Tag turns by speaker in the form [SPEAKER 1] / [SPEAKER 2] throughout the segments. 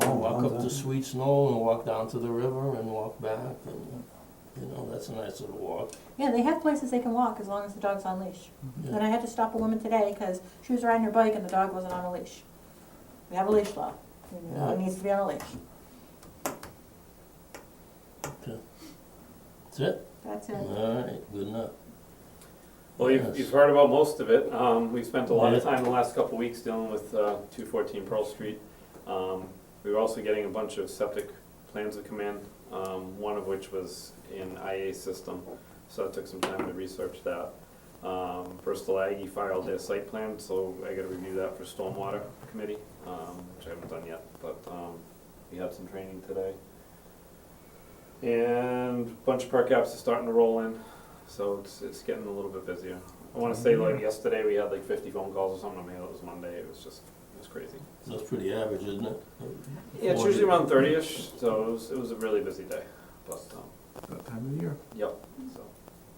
[SPEAKER 1] know, walk up
[SPEAKER 2] down.
[SPEAKER 1] Oh, to Sweet Snow and walk down to the river and walk back and, you know, that's a nice little walk.
[SPEAKER 3] Yeah, they have places they can walk as long as the dog's on leash.
[SPEAKER 1] Yeah.
[SPEAKER 3] And I had to stop a woman today because she was riding her bike and the dog wasn't on a leash. We have a leash law. The dog
[SPEAKER 1] Yeah.
[SPEAKER 3] needs to be on a leash.
[SPEAKER 1] That's it?
[SPEAKER 3] That's it.
[SPEAKER 1] All right, good enough.
[SPEAKER 4] Well, you've,
[SPEAKER 1] Yes.
[SPEAKER 4] you've heard about most of it. Um, we've spent a lot of
[SPEAKER 1] Yeah.
[SPEAKER 4] time the last couple of weeks dealing with, uh, two fourteen Pearl Street. Um, we were also getting a bunch of septic plans of command, um, one of which was in IA system. So I took some time to research that. Um, Bristol Aggie filed their site plan, so I gotta review that for stormwater committee, um, which I haven't done yet, but, um, we had some training today. And a bunch of perk apps are starting to roll in, so it's, it's getting a little bit busier. I wanna say like yesterday, we had like fifty phone calls or something, I mean, it was Monday, it was just, it was crazy.
[SPEAKER 1] That's pretty average, isn't it?
[SPEAKER 4] Yeah, it's usually around thirty-ish, so it was, it was a really busy day, but, um,
[SPEAKER 2] That time of year.
[SPEAKER 4] Yep, so,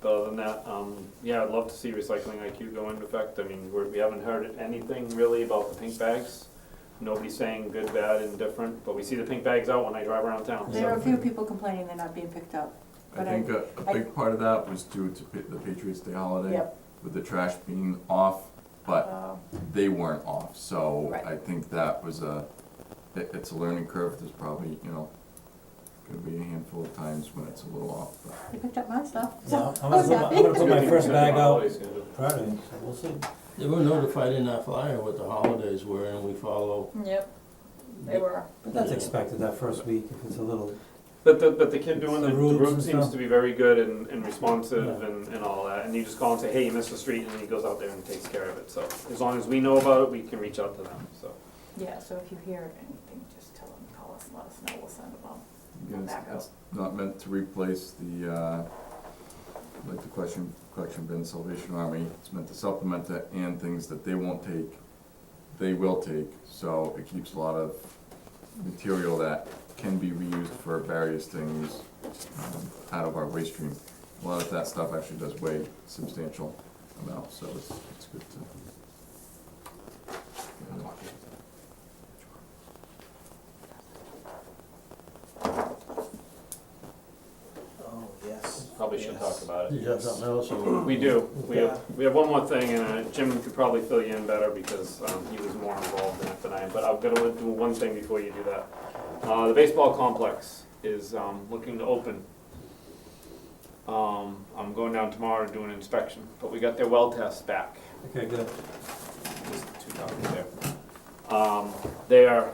[SPEAKER 4] but other than that, um, yeah, I'd love to see recycling IQ go into effect, I mean, we're, we haven't heard anything really about the pink bags. Nobody's saying good, bad, indifferent, but we see the pink bags out when I drive around town,
[SPEAKER 3] There are a
[SPEAKER 4] so,
[SPEAKER 3] few people complaining they're not being picked up.
[SPEAKER 2] I
[SPEAKER 3] But I-
[SPEAKER 2] think a, a big part of that was due to pa- the Patriots Day holiday,
[SPEAKER 3] Yep.
[SPEAKER 2] with the trash being off, but
[SPEAKER 3] Um,
[SPEAKER 2] they weren't off, so
[SPEAKER 3] Right.
[SPEAKER 2] I think that was a, it, it's a learning curve, there's probably, you know, gonna be a handful of times when it's a little off, but.
[SPEAKER 3] They picked up my stuff.
[SPEAKER 5] Yeah,
[SPEAKER 3] So
[SPEAKER 5] I'm
[SPEAKER 3] I
[SPEAKER 5] gonna
[SPEAKER 3] was
[SPEAKER 5] put my, I'm
[SPEAKER 3] happy.
[SPEAKER 5] gonna put my first bag out
[SPEAKER 4] Holiday schedule.
[SPEAKER 5] Friday, so we'll see.
[SPEAKER 1] They were notified in our flyer what the holidays were and we follow.
[SPEAKER 3] Yep, they were.
[SPEAKER 5] But that's expected that first week if it's a little,
[SPEAKER 4] But the, but the kid doing
[SPEAKER 5] The
[SPEAKER 4] the, the
[SPEAKER 5] routes
[SPEAKER 4] route
[SPEAKER 5] and
[SPEAKER 4] seems
[SPEAKER 5] stuff.
[SPEAKER 4] to be very good and, and responsive
[SPEAKER 5] Yeah.
[SPEAKER 4] and, and all that, and you just call and say, hey, you missed the street, and he goes out there and takes care of it, so, as long as we know about it, we can reach out to them, so.
[SPEAKER 3] Yeah, so if you hear anything, just tell them, call us, let us know, we'll send them out.
[SPEAKER 2] Yeah, it's-
[SPEAKER 3] Back up.
[SPEAKER 2] it's Not meant to replace the, uh, like the question, collection bin Salvation Army, it's meant to supplement that and things that they won't take, they will take, so it keeps a lot of material that can be reused for various things, um, out of our waste stream. A lot of that stuff actually does weigh substantial amount, so it's, it's good to.
[SPEAKER 5] oh, yes.
[SPEAKER 4] Probably should talk about it.
[SPEAKER 1] Did you have something else or?
[SPEAKER 4] We do, we
[SPEAKER 5] Yeah.
[SPEAKER 4] have, we have one more thing, and uh, Jim could probably fill you in better because um, he was more involved in it than I am, but I've got to do one thing before you do that. Uh, The baseball complex is um, looking to open. Um, I'm going down tomorrow to do an inspection, but we got their well test back.
[SPEAKER 5] Okay, good.
[SPEAKER 4] There's two copies there. Um, They are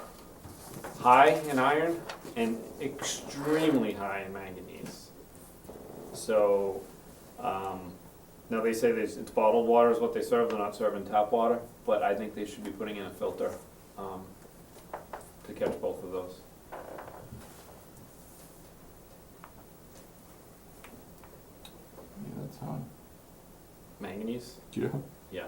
[SPEAKER 4] high in iron and extremely high in manganese. So, um, now they say there's, it's bottled water is what they serve, they're not serving tap water, but I think they should be putting in a filter, um, to catch both of those.
[SPEAKER 2] Yeah, that's fine.
[SPEAKER 4] Manganese?
[SPEAKER 2] Do you?
[SPEAKER 4] Yeah,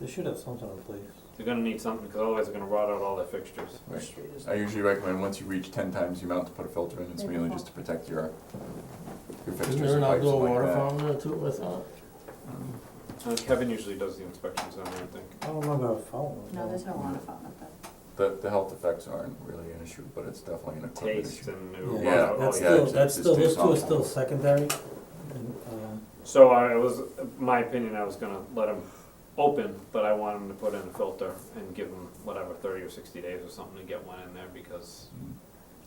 [SPEAKER 5] They should have something in place.
[SPEAKER 4] they're gonna need something, because otherwise they're gonna rot out all their fixtures.
[SPEAKER 2] Right. I usually recommend once you reach ten times the amount to put a filter in, it's
[SPEAKER 3] Maybe
[SPEAKER 2] mainly
[SPEAKER 3] four.
[SPEAKER 2] just to protect your, your
[SPEAKER 1] Isn't
[SPEAKER 2] fixtures
[SPEAKER 1] there
[SPEAKER 2] and
[SPEAKER 1] an
[SPEAKER 2] pipes and
[SPEAKER 1] outdoor
[SPEAKER 2] like
[SPEAKER 1] water
[SPEAKER 2] that.
[SPEAKER 1] fountain there too, I thought?
[SPEAKER 4] Uh, Kevin usually does the inspections on there, I think.
[SPEAKER 5] I don't remember a phone.
[SPEAKER 3] No, there's no water fountain up there.
[SPEAKER 2] The, the health effects aren't really an issue, but it's definitely an equipment
[SPEAKER 4] Taste
[SPEAKER 2] issue.
[SPEAKER 4] and. it will rot
[SPEAKER 2] Yeah, oh,
[SPEAKER 5] Yeah,
[SPEAKER 4] out all
[SPEAKER 5] that's
[SPEAKER 4] your-
[SPEAKER 5] still,
[SPEAKER 2] yeah, it's-
[SPEAKER 5] that's
[SPEAKER 2] it's
[SPEAKER 5] still,
[SPEAKER 2] too
[SPEAKER 5] those two are
[SPEAKER 2] soft.
[SPEAKER 5] still secondary. And, uh,
[SPEAKER 4] So I was, my opinion, I was gonna let him open, but I want him to put in a filter and give him whatever, thirty or sixty days or something to get one in there because
[SPEAKER 2] Mm.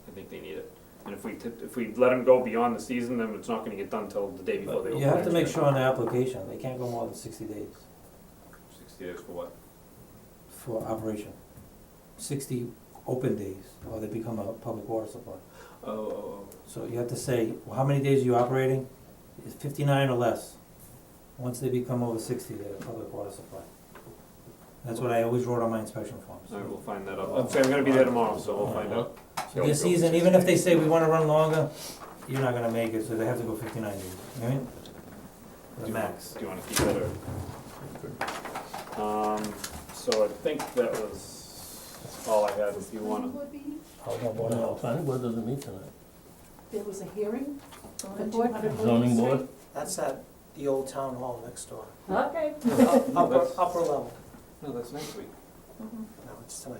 [SPEAKER 4] I think they need it. And if we, t- if we let him go beyond the season, then it's not gonna get done till the day before they
[SPEAKER 5] But
[SPEAKER 4] open.
[SPEAKER 5] you have to make
[SPEAKER 4] next
[SPEAKER 5] sure
[SPEAKER 4] year.
[SPEAKER 5] on the application, they can't go more than sixty days
[SPEAKER 4] Sixty days for what?
[SPEAKER 5] for operation. Sixty open days, or they become a public water supply.
[SPEAKER 4] Oh, oh, oh.
[SPEAKER 5] So you have to say, well, how many days are you operating? Is fifty-nine or less? Once they become over sixty, they're a public water supply. That's what I always wrote on my inspection forms.
[SPEAKER 4] I will find that out. I'm saying I'm gonna be there tomorrow, so we'll find out.
[SPEAKER 5] So this season, even if they say we wanna run longer, you're not gonna make it, so they have to go fifty-nine days, right? The
[SPEAKER 4] Do you-
[SPEAKER 5] max.
[SPEAKER 4] Do you wanna keep that or? Um, so I think that was all I had. If you wanna
[SPEAKER 1] No, planning board doesn't meet tonight.
[SPEAKER 3] There was a hearing on the
[SPEAKER 6] On
[SPEAKER 3] board.
[SPEAKER 6] 200
[SPEAKER 1] Zoning board?
[SPEAKER 7] That's at the old town hall next door,
[SPEAKER 6] Okay.
[SPEAKER 7] upper,
[SPEAKER 4] that's-
[SPEAKER 7] upper level.
[SPEAKER 4] No, that's next week.
[SPEAKER 3] Mm-hmm.
[SPEAKER 7] No, it's tonight.